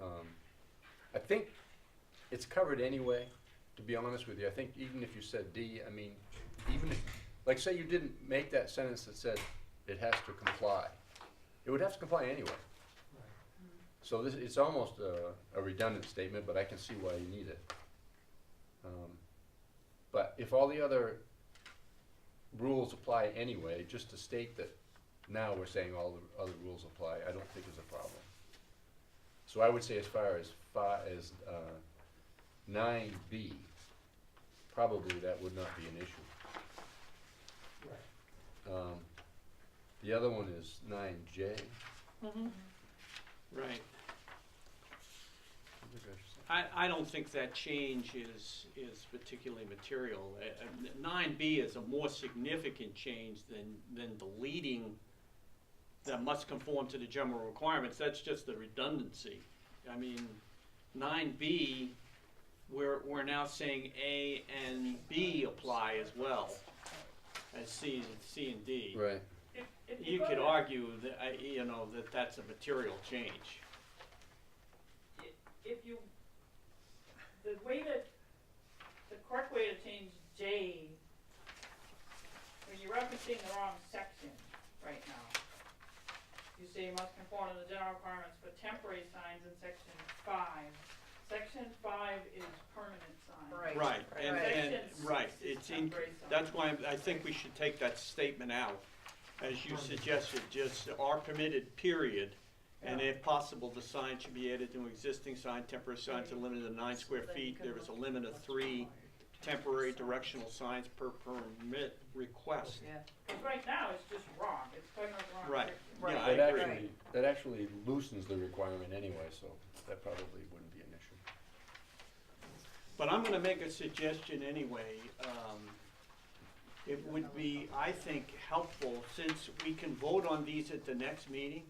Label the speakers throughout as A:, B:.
A: Um, I think it's covered anyway, to be honest with you. I think even if you said D, I mean, even if, like, say you didn't make that sentence that said it has to comply, it would have to comply anyway. So this, it's almost a, a redundant statement, but I can see why you need it. Um, But if all the other rules apply anyway, just to state that now we're saying all the other rules apply, I don't think is a problem. So I would say as far as fi- as, uh, nine B, probably that would not be an issue. Um, the other one is nine J.
B: Right. I, I don't think that change is, is particularly material. Uh, Nine B is a more significant change than, than deleting that must conform to the general requirements. That's just the redundancy. I mean, nine B, we're, we're now saying A and B apply as well as C, C and D.
A: Right,
C: If, if
B: You
C: go
B: could
C: to-
B: argue that, I- you know, that that's a material change.
C: If you, the way to, the correct way to change J, when you're referencing the wrong section right now, you say you must conform to the general requirements for temporary signs in section five. Section five is permanent signs.
D: Right.
B: Right, and,
D: Right.
B: and,
C: Section
B: right,
C: six is
B: it's in,
C: temporary signs.
B: that's why I think we should take that statement out, as you suggested, just are permitted, period. And
C: Yeah.
B: if possible, the sign should be added to existing sign, temporary signs are limited to nine square feet, there is a limit of three temporary directional signs per permit request.
D: Yeah,
C: 'Cause right now, it's just wrong, it's talking about the wrong
B: Right.
C: section.
B: Yeah, I
A: that
B: agree.
A: actually, that actually loosens the requirement anyway, so that probably wouldn't be an issue.
B: But I'm gonna make a suggestion anyway. Um, It would be, I think, helpful, since we can vote on these at the next meeting,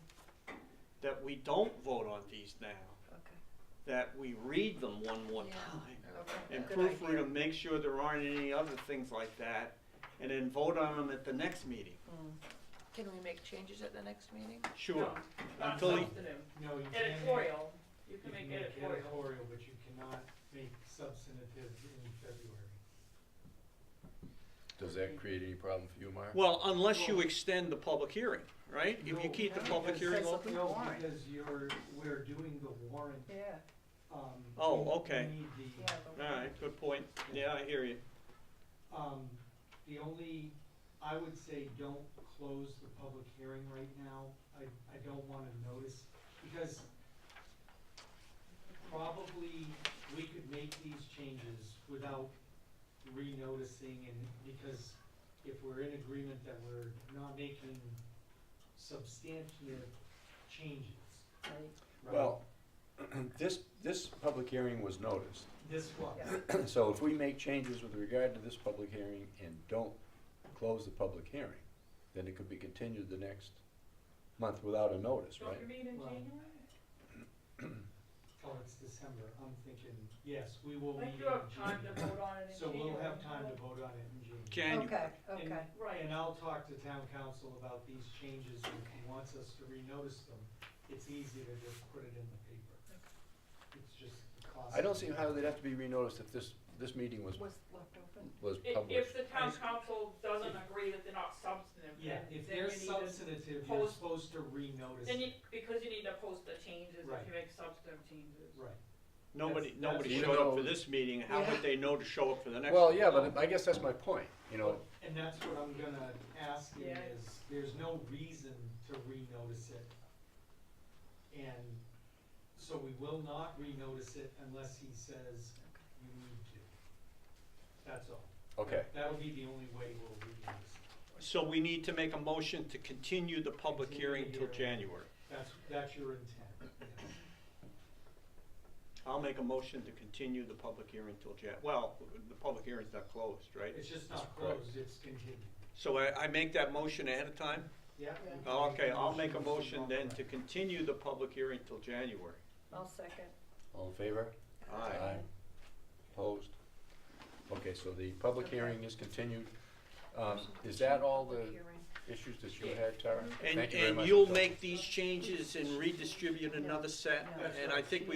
B: that we don't vote on these now,
D: okay,
B: that we read them one more
D: Yeah.
B: time.
D: okay.
B: And
D: Good
B: proofread
D: idea.
B: them, make sure there aren't any other things like that, and then vote on them at the next meeting.
D: Can we make changes at the next meeting?
B: Sure.
C: No, Not
B: Until, you-
C: substantive,
E: No, you can't.
C: editorial, you
E: You
C: can make editorial.
E: editorial, but you cannot make substantive in February.
A: Does that create any problem for you, Mark?
B: well, unless you extend the public hearing, right? If you
E: No,
B: keep the
D: no,
B: public
E: because-
B: hearing open?
E: No,
D: Warrant.
E: because you're, we're doing the warrant,
D: Yeah,
E: um.
B: Oh,
E: we- we
B: okay.
E: need
D: yeah.
E: the,
B: All right, good point. Yeah, I hear you.
E: um, the only, I would say, don't close the public hearing right now. I, I don't wanna notice, because probably we could make these changes without re-noticing and, because if we're in agreement that we're not making substantive changes, right?
A: Well, this, this public hearing was noticed.
E: This one,
D: Yeah.
A: So if we make changes with regard to this public hearing and don't close the public hearing, then it could be continued the next month without a notice,
C: Don't
A: right?
C: you meet in
E: Well,
C: January?
E: oh, it's December, I'm thinking, yes, we will
C: Like
E: meet in
C: you have time
E: June.
C: to vote on it in
E: So
C: January.
E: we'll have time to vote on it in June.
B: January.
D: Okay, okay,
E: And-
C: Right.
E: And I'll talk to town council about these changes, and if he wants us to renotice them, it's easy to just put it in the paper. It's just the cost.
A: I don't see how they'd have to be renoticed if this, this meeting was,
D: was left open.
A: was
C: If,
A: published.
C: if the town council doesn't agree that they're not substantive,
E: Yeah,
C: then, then
E: if
C: you
E: they're
C: need to,
E: substantive, you're
C: post-
E: supposed to renotice
C: then you,
E: it.
C: because you need to post the changes, if
E: Right.
C: you make substantive changes.
E: Right,
B: Nobody,
E: That's- that's
B: nobody
A: what-
B: showed up for
A: Even though-
B: this meeting, how would they know to show up for the next?
A: Well,
B: one?
A: yeah, but I guess that's my point, you know,
E: and that's what I'm gonna ask you
C: Yeah.
E: is, there's no reason to renotice it. And so we will not renotice it unless he says you need to. That's all.
A: okay,
E: That would be the only way we'll renotice it.
B: So we need to make a motion to continue the public
E: Continue
B: hearing till
E: the hearing.
B: January.
E: That's, that's your intent, yes.
B: I'll make a motion to continue the public hearing till Jan, well, the public hearing's not closed, right?
E: It's just
A: That's
E: not
A: correct.
E: closed, it's continued.
B: So I, I make that motion ahead of time?
E: Yeah?
D: Yeah.
B: Oh, Okay, I'll make a motion then to continue the public hearing till January.
D: I'll second.
A: all in favor?
B: Aye.
A: Opposed? Okay, so the public
D: Okay.
A: hearing is continued. Um, is that all the
D: Hearing.
A: issues that you had, Tara?
B: And,
A: Thank you very
B: and
A: much for
B: you'll
A: coming.
B: make these changes and redistribute another set,
D: Yeah.
B: and I think we